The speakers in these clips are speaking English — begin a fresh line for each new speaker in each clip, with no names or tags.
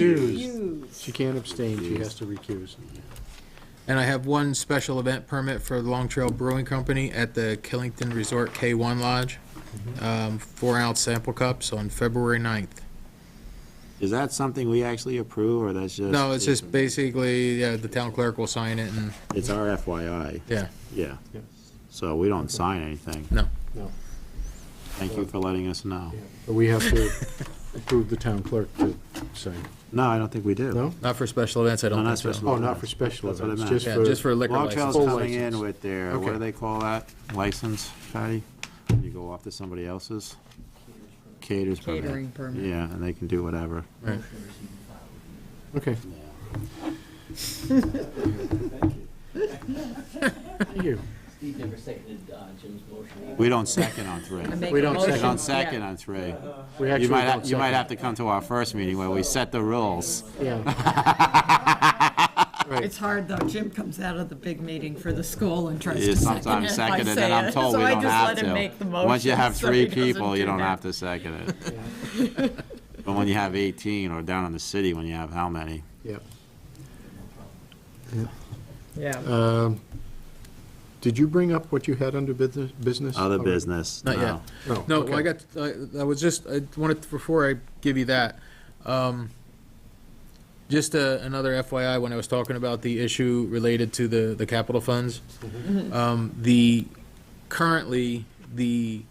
Recuse.
Recuse.
She can't abstain, she has to recuse.
And I have one special event permit for the Long Trail Brewing Company at the Killington Resort K1 Lodge, um, four-ounce sample cups on February 9th.
Is that something we actually approve, or that's just?
No, it's just basically, yeah, the town clerk will sign it, and,
It's our FYI,
yeah,
yeah.
Yep.
So we don't sign anything.
No.
No.
Thank you for letting us know.
But we have to approve the town clerk to sign.
No, I don't think we do.
No?
not for special events, I
No,
don't
not
think so.
special.
Oh, not for special
That's what I
events,
meant.
just
Yeah,
for.
just for liquor
Long
license.
Trail's
Full
coming in
license.
with their, what
Okay.
do they call that, license, Patty? When You go off to somebody else's? Caterers permit.
Catering permit.
Yeah, and they can do whatever.
Okay. Thank you.
Steve never seconded uh, Jim's motion.
We don't second on three.
I make
We
a
don't
motion-
second.
We don't
yeah.
second on three.
We
You
actually
might,
don't
ha- you might
second.
have to come to our first meeting where we set the rules.
Yeah. Right,
It's hard, though. Jim comes out of the big meeting for the school and tries
Yeah,
to second it
sometimes
if I
second it,
say
and I'm
it.
told
So
we
I
don't
just
have
let him
to.
make the
Once you
motion,
have
so
three
he doesn't
people, you don't
that.
have to second it. But when you have 18, or down in the city, when you have how many?
yeah.
Yeah.
Um, Did you bring up what you had under business- business?
Other
already?
business.
Not yet.
no.
No.
No, well, I
okay.
got, I I was just, I wanted, before I give you that, um, just uh, another FYI, when I was talking about the issue related to the, the capital funds, um, the, currently, the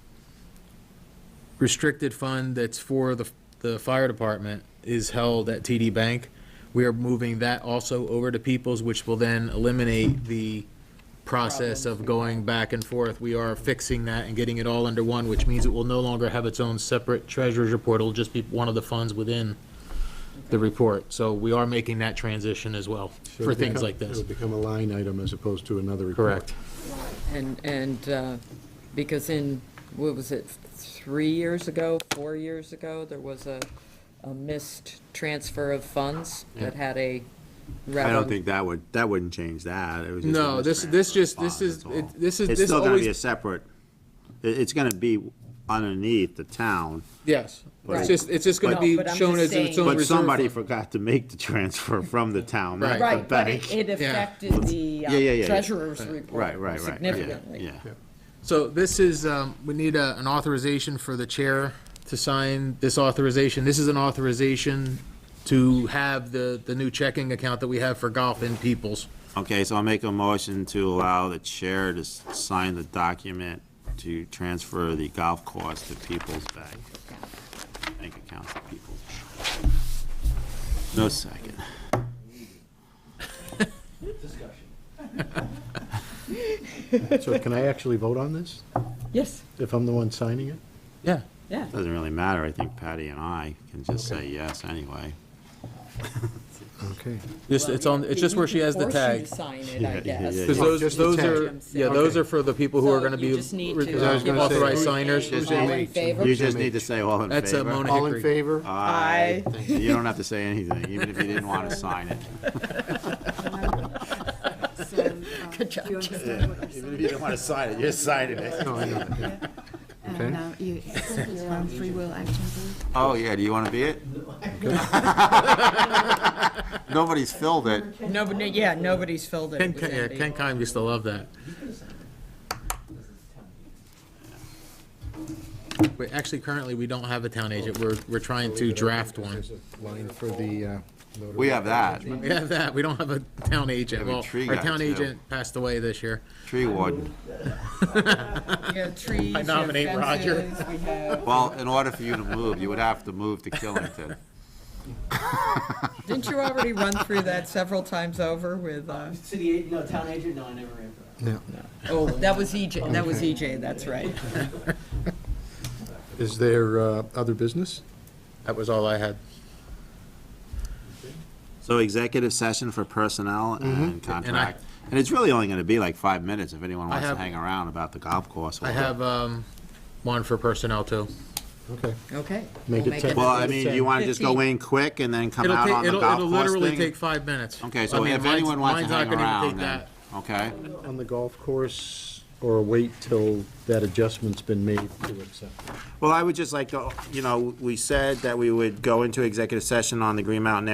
restricted fund that's for the, the fire department is held at TD Bank. We are moving that also over to Peoples, which will then eliminate the process of going back and forth. We are fixing that and getting it all under one, which means it will no longer have its own separate treasurer's report. It'll just be one of the funds within the report. So we are making that transition as well
So
for
it'll
things
become-
like this.
It'll become a line item as opposed to another report.
Correct.
And, and, uh, because in, what was it, three years ago, four years ago, there was a, a missed transfer of funds that had a.
I don't think that would, that wouldn't change that. It was just
No,
a
this- this
mismatch
just-
of
this
funds,
is-
that's all.
it- this is-
It's
this
still gonna
always-
be a separate, it- it's gonna be underneath the town,
Yes.
Right.
It's just, it's just
No,
gonna be
but I'm
shown as
just
its
saying-
own
but
reserve
somebody
fund.
forgot to make the transfer from the town, not
Right.
the
Right, but
bank.
it- it
Yeah.
affected the
Yeah, yeah, yeah,
uh,
yeah.
treasurer's report
Right, right, right. yeah,
significantly.
Yeah.
So this is, um, we need a- an authorization for the chair to sign this authorization. This is an authorization to have the, the new checking account that we have for golf in Peoples.
Okay, so I'll make a motion to allow the chair to s- sign the document to transfer the golf course to People's Bank. Bank account to People's. No second.
Discussion.
So can I actually vote on this,
Yes,
if I'm the one signing it?
Yeah.
yeah.
Doesn't really matter. I think Patty and I can just say yes anyway.
Okay.
Just, it's on, it's just where she has the tag.
Sign it, I
Yeah, yeah,
guess.
yeah,
Because
Oh,
those,
just the
those
tag.
are, yeah, those are for the people who
So
are gonna
you
be
just need to, uh,
I was gonna say-
authorized signers.
Just
All
need-
in favor?
You just need to say all in favor.
That's, uh, Mona.
All in
Hickory.
favor?
Aye. You don't have to say anything, even if you didn't want to sign it.
So, uh, do you understand what you're
Even
saying?
if you didn't want to sign it, you're signing it.
No, I know.
And uh, you, you're on free will action group.
Oh, yeah, do you want to be it? Nobody's filled it.
No, but, no- yeah, nobody's filled it.
Ken,
It was
yeah,
empty.
Ken Kime used to love that. Wait, actually, currently, we don't have a town agent. We're, we're trying to draft one.
There's a Line for the. uh, notary.
We have that.
We have that. We don't have a town agent.
We have a
Well,
tree
our
guy,
town
too.
agent passed away this year.
Tree warden.
You have trees, you have
nominate Roger.
fences, we have-
Well, in order for you to move, you would have to move to Killington.
Didn't you already run through that several times over with, uh,
City, a- no, town agent, no, I never ran for that.
oh, that was EJ, that was EJ, that's right.
Is there uh, other business?
That was all I had.
So executive session for personnel and
Mm-hmm. And I-
contract. And it's really only going to be like five minutes if anyone wants to
have-
hang around about the golf course.
I have, um, one for personnel too.
Okay.
Okay.
Make
we'll
it ten.
Well, I mean, do you want to just go in quick and then come
It'll
out
take-
on the
it'll-
golf
It'll
course
literally
thing?
take five minutes.
Okay,
I
so
mean,
if
mine's-
anyone wants to
mine's not
hang
gonna even
around,
take
then, okay.
On the golf course, or wait till that adjustment's been made to accept? it?
Well, I would just like to, you know, we said that we would go into executive session on the Green Mountain